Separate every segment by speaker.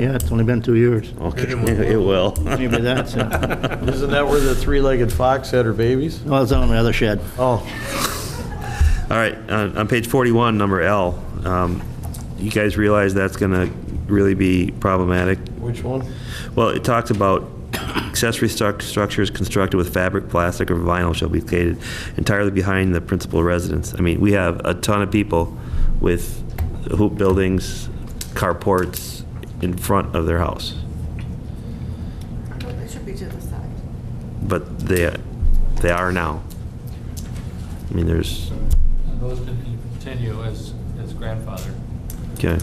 Speaker 1: Yeah, it's only been two years.
Speaker 2: Okay, it will.
Speaker 1: Maybe that's, uh,
Speaker 3: Isn't that where the three-legged fox had her babies?
Speaker 1: well, it's on the other shed.
Speaker 3: Oh,
Speaker 2: All right, uh, on on page 41, number L, um, you guys realize that's going to really be problematic?
Speaker 3: which one?
Speaker 2: Well, it talks about accessory struc- structures constructed with fabric, plastic, or vinyl shall be located entirely behind the principal residence. I mean, we have a ton of people with hoop buildings, carports in front of their house,
Speaker 4: Well, It should be to the side.
Speaker 2: but they, they are now. I mean, there's,
Speaker 5: And Those can continue as, as grandfather.
Speaker 2: okay,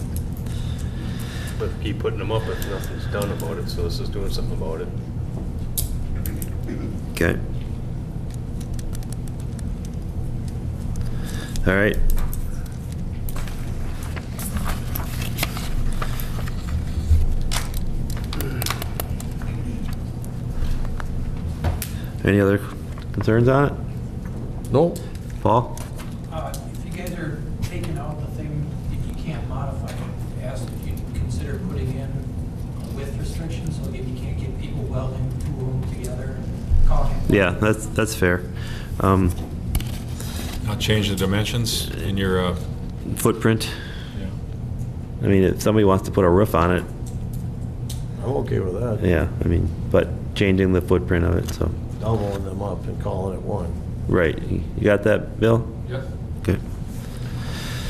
Speaker 6: But keep putting them up if nothing's done about it, so this is doing something about it.
Speaker 2: okay. All right. Any other concerns on it?
Speaker 3: No.
Speaker 2: Paul?
Speaker 7: Uh, If you guys are taking out the thing, if you can't modify it, ask if you consider putting in a width restriction, so if you can't get people welding two of them together, calling it.
Speaker 2: Yeah, that's, that's fair. Um,
Speaker 8: Not uh, change the dimensions in your, uh,
Speaker 2: Footprint,
Speaker 8: yeah.
Speaker 2: I mean, if somebody wants to put a roof on it,
Speaker 3: I'm okay with that.
Speaker 2: yeah, I mean, but changing the footprint of it, so,
Speaker 3: Doubling them up and calling it one.
Speaker 2: right, you got that, Bill?
Speaker 5: Yep.
Speaker 2: Okay.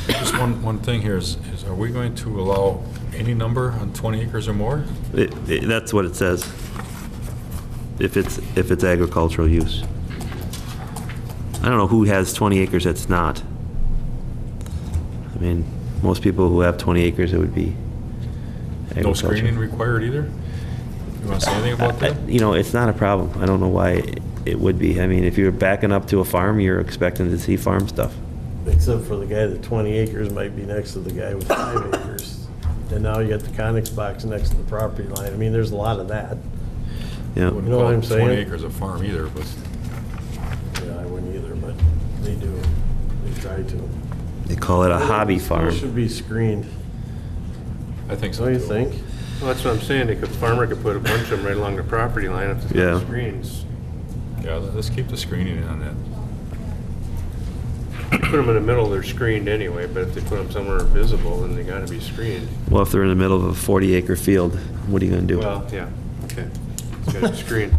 Speaker 8: just one, one thing here is, is are we going to allow any number on 20 acres or more?
Speaker 2: It- it- That's what it says. If it's, if it's agricultural use. I don't know who has 20 acres that's not. I mean, most people who have 20 acres, it would be
Speaker 8: No
Speaker 2: agriculture.
Speaker 8: screening required either? You want to say anything about
Speaker 2: I-
Speaker 8: that?
Speaker 2: You know, it's not a problem. I don't know why it would be. I mean, if you're backing up to a farm, you're expecting to see farm stuff.
Speaker 3: Except for the guy that 20 acres might be next to the guy with five acres. And now you got the Conex box next to the property line. I mean, there's a lot of that.
Speaker 2: Yeah,
Speaker 8: Wouldn't
Speaker 3: You know what
Speaker 8: call
Speaker 3: I'm
Speaker 8: it
Speaker 3: saying?
Speaker 8: 20 acres a farm either, but
Speaker 3: Yeah, I wouldn't either, but they do. They try to.
Speaker 2: they call it a hobby farm.
Speaker 3: It should be screened.
Speaker 8: I think so.
Speaker 3: Don't you
Speaker 8: too.
Speaker 3: think?
Speaker 6: Well, that's what I'm saying, they could, farmer could put a bunch of them right along the property line if
Speaker 2: Yeah.
Speaker 6: there's screens.
Speaker 8: Yeah, let- let's keep the screening in on that.
Speaker 6: Put them in the middle, they're screened anyway, but if they put them somewhere visible, then they gotta be screened.
Speaker 2: Well, if they're in the middle of a 40 acre field, what are you gonna do?
Speaker 6: Well, yeah, okay. It's gotta be screened.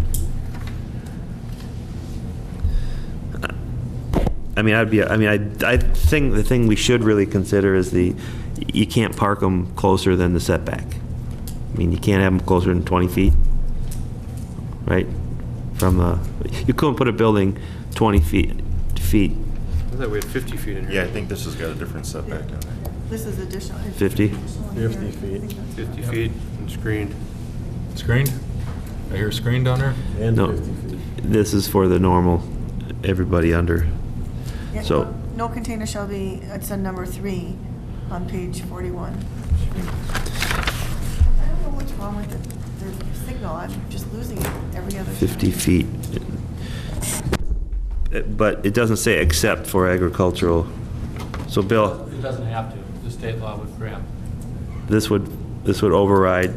Speaker 2: I mean, I'd be, I mean, I, I think the thing we should really consider is the, you can't park them closer than the setback. I mean, you can't have them closer than 20 feet, right? From, uh, you couldn't put a building 20 feet, feet,
Speaker 6: I thought we had 50 feet in here.
Speaker 9: Yeah, I think this has got a different setback on it.
Speaker 4: This is additional.
Speaker 2: 50?
Speaker 4: Additional here.
Speaker 3: 50 feet.
Speaker 4: I think that's-
Speaker 6: 50 feet and screened.
Speaker 8: Screened? I hear screened down there?
Speaker 3: And
Speaker 2: No.
Speaker 3: 50 feet.
Speaker 2: this is for the normal, everybody under.
Speaker 4: Yeah,
Speaker 2: So-
Speaker 4: no- No container shall be, it's on number three on page 41. I don't know what's wrong with the- the signal, I'm just losing it every other. time.
Speaker 2: 50 feet. Uh, But it doesn't say except for agricultural. So Bill,
Speaker 5: It doesn't have to. The state law would grant.
Speaker 2: this would, this would override,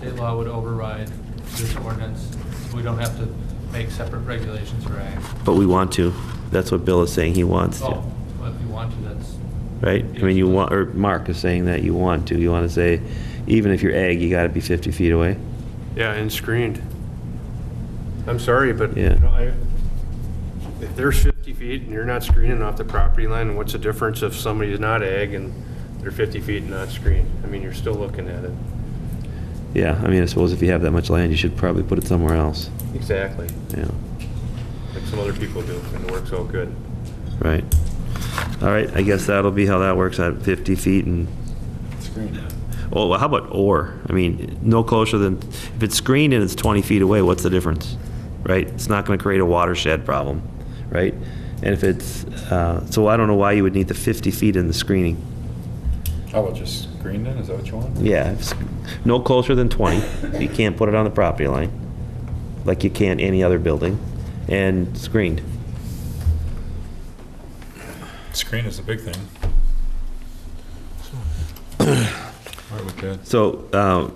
Speaker 5: State law would override this ordinance. We don't have to make separate regulations for ag.
Speaker 2: but we want to. That's what Bill is saying he wants to,
Speaker 5: Oh, well, if you want to, that's,
Speaker 2: right? I mean, you want, or Mark is saying that you want to. You want to say, even if you're ag, you got to be 50 feet away.
Speaker 6: Yeah, and screened. I'm sorry, but, you
Speaker 2: Yeah.
Speaker 6: know, I, if there's 50 feet and you're not screening off the property line, what's the difference if somebody is not ag and they're 50 feet and not screened? I mean, you're still looking at it.
Speaker 2: Yeah, I mean, I suppose if you have that much land, you should probably put it somewhere else.
Speaker 6: Exactly.
Speaker 2: Yeah,
Speaker 6: Like some other people do, and it works out good.
Speaker 2: right. All right, I guess that'll be how that works at 50 feet and Oh,
Speaker 9: Screened.
Speaker 2: Well, how about or? I mean, no closer than, if it's screened and it's 20 feet away, what's the difference? Right? It's not going to create a watershed problem, right? And if it's, uh, so I don't know why you would need the 50 feet in the screening.
Speaker 8: How about just screened in, is that what you want?
Speaker 2: Yeah, it's no closer than 20. You can't put it on the property line, like you can any other building, and screened.
Speaker 8: Screen is the big thing. All right, we Okay.
Speaker 2: So, uh,